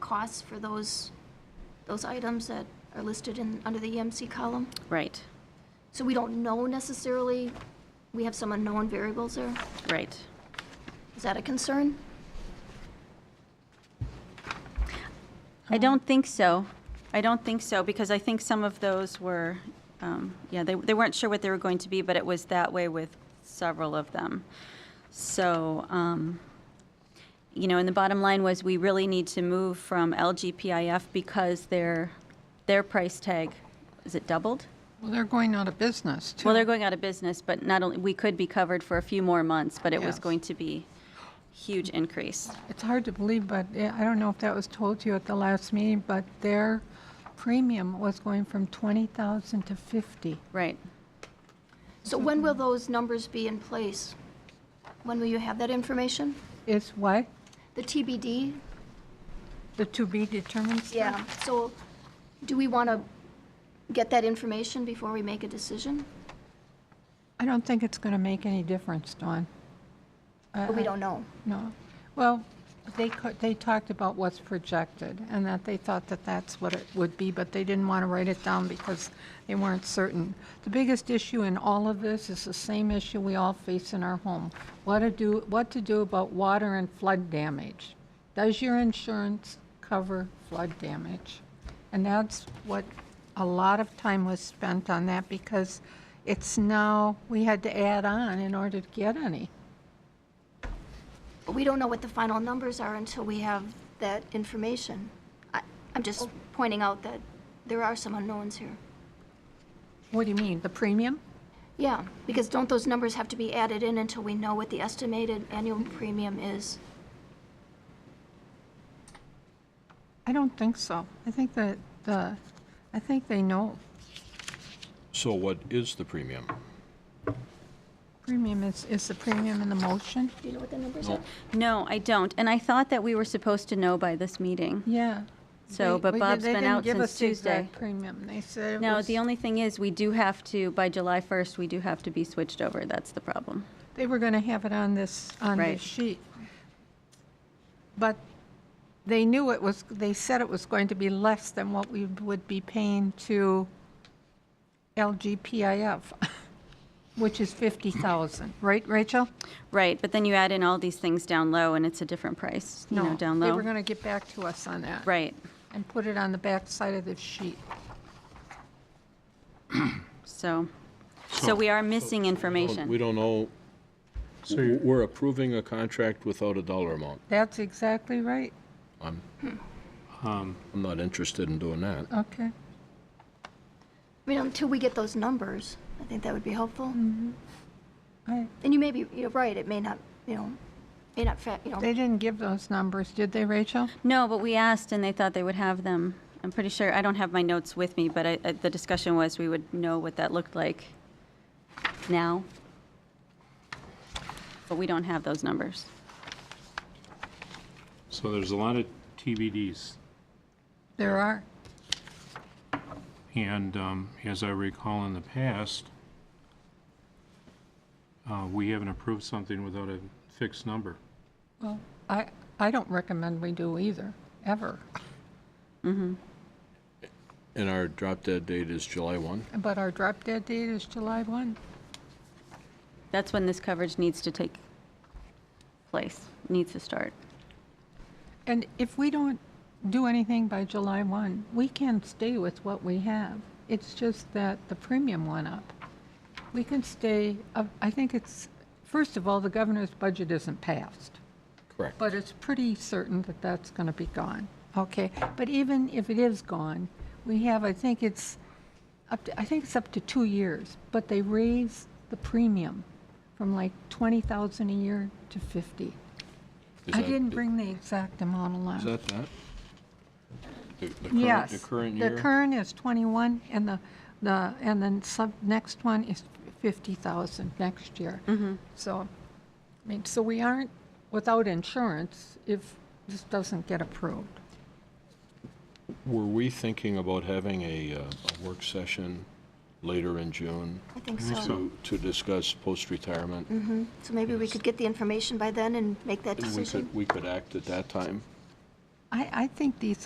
costs for those, those items that are listed in, under the EMC column. Right, So we don't know necessarily, we have some unknown variables there. right. Is that a concern? I don't think so. I don't think so, because I think some of those were, um, yeah, they, they weren't sure what they were going to be, but it was that way with several of them. So, um, you know, and the bottom line was, we really need to move from LGPIF because their, their price tag, is it doubled? Well, they're going out of business, too. Well, they're going out of business, but not only, we could be covered for a few more months, but it was Yes. going to be huge increase. It's hard to believe, but eh, I don't know if that was told to you at the last meeting, but their premium was going from 20,000 to 50. Right. So when will those numbers be in place? When will you have that information? It's what? The TBD? The to-be determined stuff? Um, So do we want to get that information before we make a decision? I don't think it's going to make any difference, Dawn. But we don't know. No. Well, they, co- they talked about what's projected, and that they thought that that's what it would be, but they didn't want to write it down because they weren't certain. The biggest issue in all of this is the same issue we all face in our home. What to do, what to do about water and flood damage? Does your insurance cover flood damage? And that's what, a lot of time was spent on that, because it's now, we had to add on in order to get any. But we don't know what the final numbers are until we have that information. I- I'm just pointing out that there are some unknowns here. What do you mean, the premium? Yeah, because don't those numbers have to be added in until we know what the estimated annual premium is? I don't think so. I think that the, I think they know So what is the premium? premium is, is the premium in the motion? Do you know what the numbers are? No, I don't. And I thought that we were supposed to know by this meeting. Yeah. So, They- but we- Bob's they been didn't out give since us the exact Tuesday. Premium, they said it No, was- the only thing is, we do have to, by July 1st, we do have to be switched over. That's the problem. They were gonna have it on this, on Right. this sheet. But they knew it was, they said it was going to be less than what we would be paying to LGPIF, which is 50,000, right, Rachel? Right, but then you add in all these things down low, and it's a different price, you know, down They low. were gonna get back to us on that. Right. And put it on the back side of the sheet. So, so we are missing We information. don't know, W- we're approving a contract without a dollar amount. That's exactly right. I'm not interested in doing that. Okay. I mean, until we get those numbers, I think that would be helpful. I- And you may be, you're right, it may not, you know, may not, fa- you know, They didn't give those numbers, did they, Rachel? No, but we asked, and they thought they would have them. I'm pretty sure, I don't have my notes with me, but I, I- the discussion was we would know what that looked like now. But we don't have those numbers. So there's a lot of TBDs, There are. and um, as I recall in the past, uh, we haven't approved something without a fixed number. Well, I, I don't recommend we do either, ever. And our drop dead date is July 1? But our drop dead date is July 1. That's when this coverage needs to take place, needs to start. And if we don't do anything by July 1, we can stay with what we have. It's just that the premium went up. We can stay, uh, I think it's, first of all, the governor's budget isn't passed. Correct. But it's pretty certain that that's going to be gone. Okay, but even if it is gone, we have, I think it's up to, I think it's up to two years, but they raise the premium from like 20,000 a year to 50. Is I that- didn't bring the exact amount along. Is that that? The- the current- Yes. The current year? The current is 21, and the, the, and then sub, next one is 50,000 next year. So, I mean, so we aren't without insurance if this doesn't get approved. Were we thinking about having a, uh, a work session later in June I think so. to, to discuss post-retirement? And Mm-hmm. So maybe we could get the information by then and make that We decision. could, we could act at that time? I, I think these